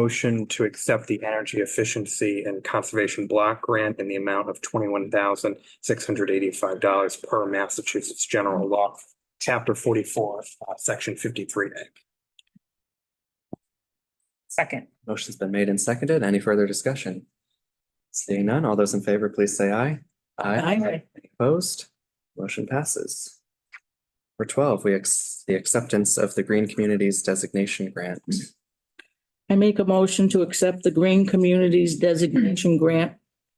motion to accept the energy efficiency and conservation block grant in the amount of twenty-one thousand six hundred eighty-five dollars per Massachusetts General Law, Chapter forty-four, uh, Section fifty-three A. Second. Motion's been made and seconded. Any further discussion? Seeing none, all those in favor, please say aye. Aye. Opposed? Motion passes. For twelve, we ex- the acceptance of the Green Communities Designation Grant. I make a motion to accept the Green Communities Designation Grant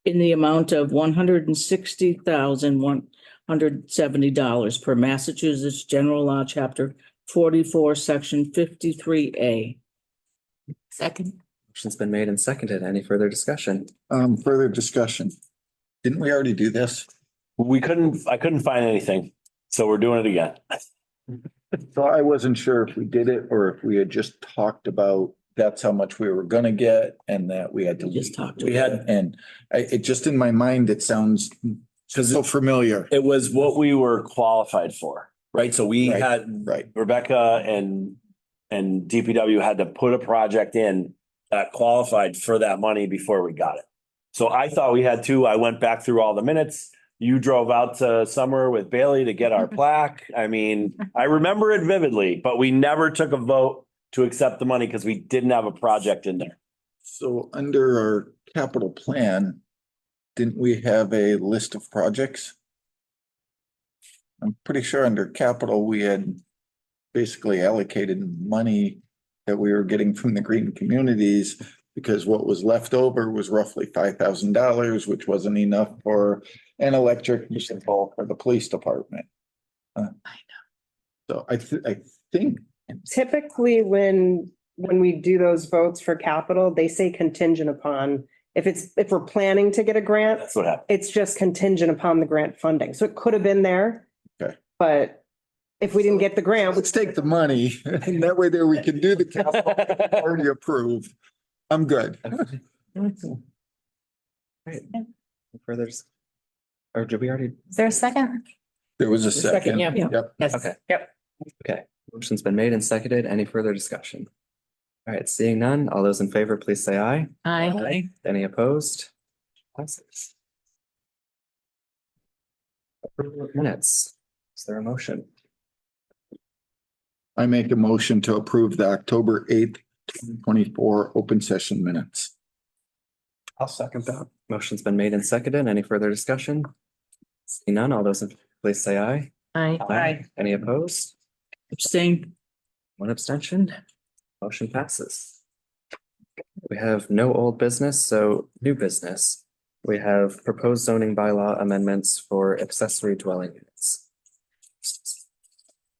in the amount of one hundred and sixty thousand, one hundred seventy dollars per Massachusetts General Law, Chapter forty-four, Section fifty-three A. Second. Motion's been made and seconded. Any further discussion? Um, further discussion. Didn't we already do this? We couldn't, I couldn't find anything, so we're doing it again. So I wasn't sure if we did it or if we had just talked about that's how much we were gonna get and that we had to. We just talked We had, and I, it just in my mind, it sounds so familiar, It was what we were qualified for, right? So we Right. had right? Rebecca and, and DPW had to put a project in that qualified for that money before we got it. So I thought we had two. I went back through all the minutes. You drove out to Summer with Bailey to get our plaque. I mean, I remember it vividly, but we never took a vote to accept the money because we didn't have a project in there. So under our capital plan, didn't we have a list of projects? I'm pretty sure under capital, we had basically allocated money that we were getting from the green communities because what was left over was roughly five thousand dollars, which wasn't enough for an electric vehicle for the police department. I know. So I thi- I think Typically, when, when we do those votes for capital, they say contingent upon, if it's, if we're planning to get a grant, That's what happened. it's just contingent upon the grant funding. So it could have been there. Okay. But if we didn't get the grant, which let's take the money and that way there we can do the capital already approved. I'm good. Right. Further. dis- Or did we already? Is there a second? There was a second. yeah. Yep. Yes. Okay. Yep. Okay, motion's been made and seconded. Any further discussion? All right, seeing none, all those in favor, please say aye. Aye. Any opposed? Passes. Approval of Minutes. Is there a motion? I make a motion to approve the October eighth, twenty-four open session minutes. I'll second that. Motion's been made and seconded. Any further discussion? Seeing none, all those in, please say aye. Aye. Aye. Any opposed? Abstain. One abstention. Motion passes. We have no old business, so new business. We have proposed zoning bylaw amendments for accessory dwelling units.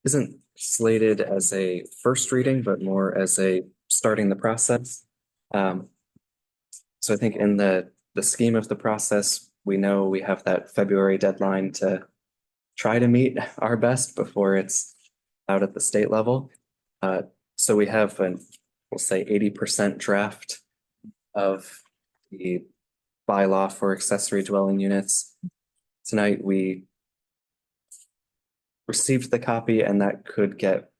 Isn't slated as a first reading, but more as a starting the process. Um, so I think in the, the scheme of the process, we know we have that February deadline to try to meet our best before it's out at the state level. Uh, so we have an, we'll say eighty percent draft of the bylaw for accessory dwelling units. Tonight, we received the copy and that could get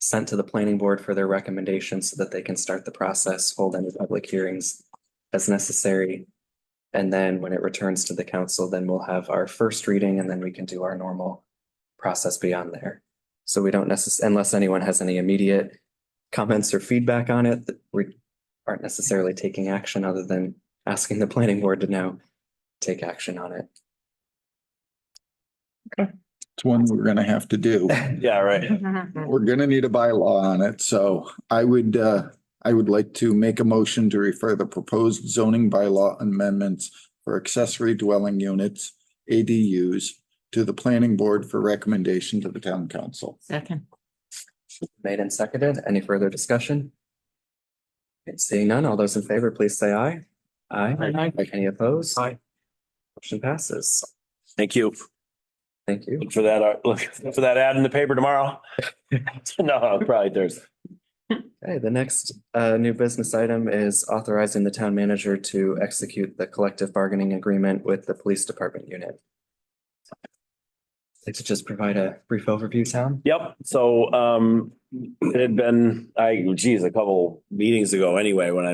sent to the planning board for their recommendations so that they can start the process, hold any public hearings as necessary. And then when it returns to the council, then we'll have our first reading and then we can do our normal process beyond there. So we don't necess- unless anyone has any immediate comments or feedback on it, that we aren't necessarily taking action other than asking the planning board to now take action on it. It's one we're gonna have to do. Yeah, right. We're gonna need a bylaw on it, so I would, uh, I would like to make a motion to refer the proposed zoning bylaw amendments for accessory dwelling units, ADUs, to the planning board for recommendation to the town council. Second. Made and seconded. Any further discussion? Okay, Seeing none, all those in favor, please say aye. Aye. Aye. Any opposed? Aye. Motion passes. Thank you. Thank you. Look for that, uh, look for that ad in the paper tomorrow. No, probably Thursday. Okay, the next uh new business item is authorizing the town manager to execute the collective bargaining agreement with the police department unit. Like to just provide a brief overview, Tom? Yep, so um, it had been, I, geez, a couple meetings ago anyway, when I